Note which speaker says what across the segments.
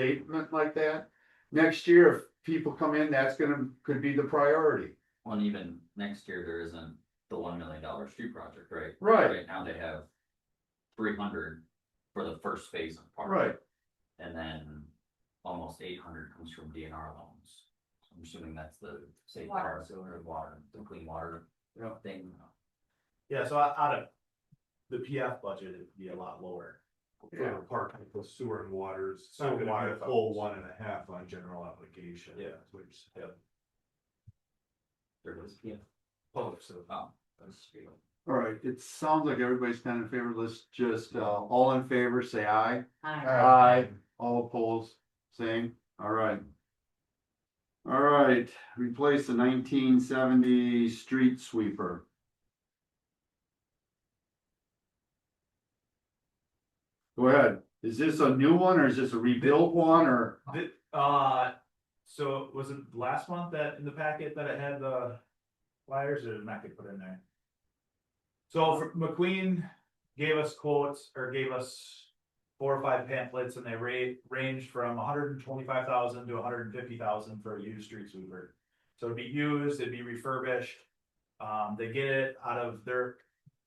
Speaker 1: statement like that. Next year, if people come in, that's gonna, could be the priority.
Speaker 2: Well, and even next year, there isn't the one million dollar street project, right?
Speaker 1: Right,
Speaker 2: Right now, they have three hundred for the first phase of the park.
Speaker 1: right.
Speaker 2: And then almost eight hundred comes from DNR loans. So I'm assuming that's the safe
Speaker 3: Water.
Speaker 2: power, sewer, water, the clean water
Speaker 1: Yeah.
Speaker 2: thing.
Speaker 4: Yeah, so out out of the PF budget, it'd be a lot lower.
Speaker 1: Yeah.
Speaker 5: For park, for sewer and waters, it's
Speaker 4: Sewer
Speaker 5: not
Speaker 4: and
Speaker 5: gonna
Speaker 4: water
Speaker 5: be a full
Speaker 4: funds.
Speaker 5: one and a half on general obligation.
Speaker 4: Yeah.
Speaker 5: that's what you're saying.
Speaker 2: There is, yeah.
Speaker 5: Public, so.
Speaker 2: Oh, that's true.
Speaker 1: All right, it sounds like everybody's kind of in favor. Let's just, uh, all in favor, say aye.
Speaker 3: Aye.
Speaker 1: Aye. All opposed, same, all right. All right, replace the nineteen seventy street sweeper. Go ahead, is this a new one or is this a rebuilt one or?
Speaker 4: Th- uh, so was it last month that in the packet that it had the flyers or did I not get put in there? So for- McQueen gave us quotes or gave us four or five pamphlets and they ra- ranged from hundred and twenty-five thousand to hundred and fifty thousand for a used street sweeper. So it'd be used, it'd be refurbished. Um, they get it out of their,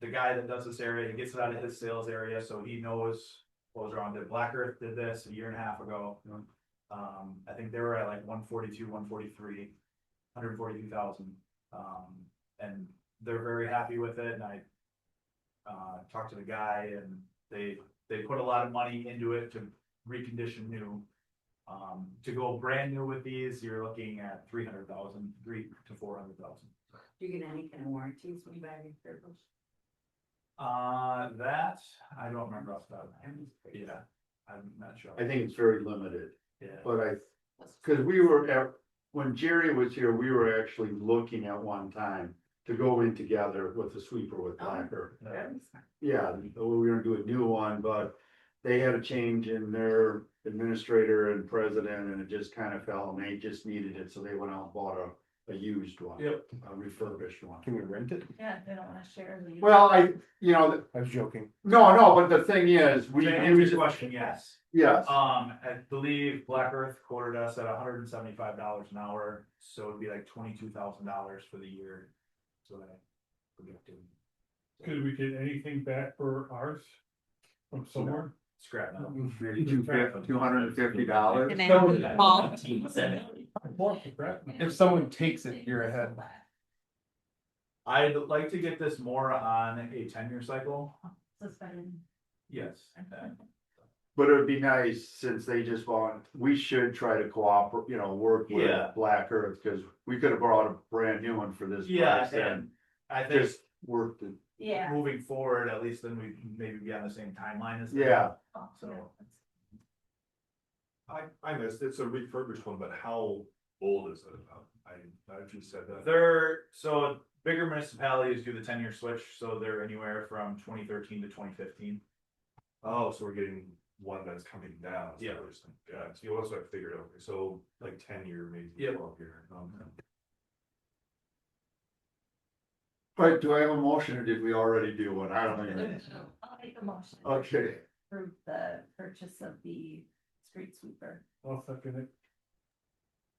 Speaker 4: the guy that does this area, he gets it out of his sales area, so he knows what was wrong. Did Black Earth did this a year and a half ago. Um, I think they were at like one forty-two, one forty-three, hundred forty-two thousand. Um, and they're very happy with it and I uh, talked to the guy and they, they put a lot of money into it to recondition new. Um, to go brand new with these, you're looking at three hundred thousand, three to four hundred thousand.
Speaker 3: Do you get any kind of warranties when you buy these vehicles?
Speaker 4: Uh, that, I don't remember off the top of my
Speaker 3: I'm
Speaker 4: head.
Speaker 3: just curious.
Speaker 4: Yeah, I'm not sure.
Speaker 1: I think it's very limited,
Speaker 4: Yeah,
Speaker 1: but I
Speaker 3: Let's-
Speaker 1: Cause we were at, when Jerry was here, we were actually looking at one time to go in together with the sweeper with Blacker.
Speaker 3: Very smart.
Speaker 1: Yeah, we were gonna do a new one, but they had a change in their administrator and president and it just kind of fell and they just needed it, so they went out and bought a, a used one.
Speaker 4: Yep.
Speaker 1: A refurbished one.
Speaker 5: Can we rent it?
Speaker 3: Yeah, they don't wanna share. the-
Speaker 1: Well, I, you know,
Speaker 5: I was joking.
Speaker 1: no, no, but the thing is, we,
Speaker 4: to answer your question, yes.
Speaker 1: yes,
Speaker 4: Um, I believe Black Earth quoted us at hundred and seventy-five dollars an hour, so it'd be like twenty-two thousand dollars for the year. So that. would be up to
Speaker 6: Could we get anything back for ours from somewhere?
Speaker 4: Scrap metal.
Speaker 1: maybe two fif- two hundred and fifty dollars.
Speaker 3: Can I- Paul?
Speaker 2: Nineteen seventy.
Speaker 5: If someone takes it, you're ahead.
Speaker 4: I'd like to get this more on a ten-year cycle.
Speaker 3: Suspended.
Speaker 4: Yes.
Speaker 1: But it would be nice, since they just want, we should try to cooperate, you know, work with
Speaker 4: Yeah.
Speaker 1: Black Earth, cause we could have brought a brand new one for this
Speaker 4: Yeah,
Speaker 1: price and
Speaker 4: and I think
Speaker 1: just worked it.
Speaker 3: Yeah.
Speaker 4: moving forward, at least then we maybe be on the same timeline as. them.
Speaker 1: Yeah,
Speaker 3: Oh,
Speaker 4: So-
Speaker 5: I, I missed, it's a refurbished one, but how old is it about? I, I just said that.
Speaker 4: They're, so bigger municipalities do the ten-year switch, so they're anywhere from twenty thirteen to twenty fifteen.
Speaker 5: Oh, so we're getting one that's coming down.
Speaker 4: Yeah.
Speaker 5: Yeah, so you also have figured out, okay, so like ten year,
Speaker 4: Yeah.
Speaker 5: maybe twelve year. um,
Speaker 1: but do I have a motion or did we already do one? I don't even,
Speaker 3: I'll make a motion. to
Speaker 1: okay,
Speaker 3: Approve the purchase of the street sweeper.
Speaker 6: I'll second it.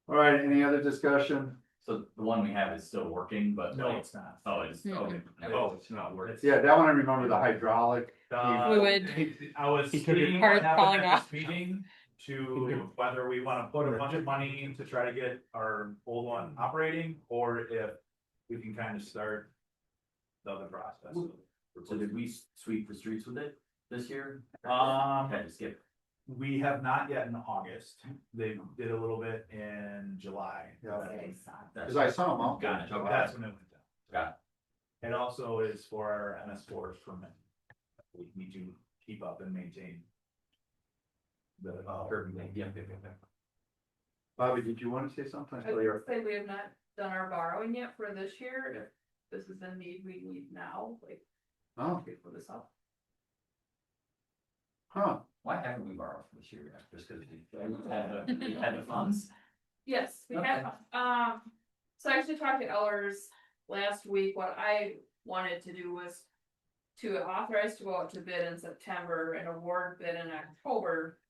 Speaker 1: all right, any other discussion?
Speaker 2: So the one we have is still working, but
Speaker 4: No,
Speaker 2: like,
Speaker 4: it's not.
Speaker 2: oh, it's, okay.
Speaker 5: Oh, it's not worth
Speaker 4: It's-
Speaker 1: Yeah, that one I remember, the hydraulic,
Speaker 4: Uh,
Speaker 7: Fluid.
Speaker 4: I was
Speaker 7: He took it-
Speaker 4: speaking
Speaker 7: Part
Speaker 4: what happened
Speaker 7: falling
Speaker 4: at
Speaker 7: off.
Speaker 4: this meeting
Speaker 5: He
Speaker 4: to whether we wanna put a bunch of money in to try to get our old one operating, or if we can kind of start the other process.
Speaker 2: So did we sweep the streets with it this year?
Speaker 4: Um,
Speaker 2: Had to skip.
Speaker 4: we have not yet in August, they did a little bit in July.
Speaker 1: Yeah.
Speaker 3: Very soft.
Speaker 2: That's-
Speaker 1: cause I saw them out.
Speaker 2: Got it, okay.
Speaker 4: That's when it went down.
Speaker 2: Got
Speaker 4: It also is for our MS four permit. We need to keep up and maintain. The, uh, urban, yeah, yeah, yeah, yeah.
Speaker 1: Bobby, did you wanna say something?
Speaker 8: I would say we have not done our borrowing yet for this year, if this is a need we need now, like,
Speaker 1: Oh,
Speaker 8: okay, for this up.
Speaker 1: huh,
Speaker 2: Why haven't we borrowed from this year yet? Just because we had the, we had the funds?
Speaker 8: Yes, we have, um, so I actually talked to Ellers last week, what I wanted to do was. To authorize to go out to bid in September and award bid in October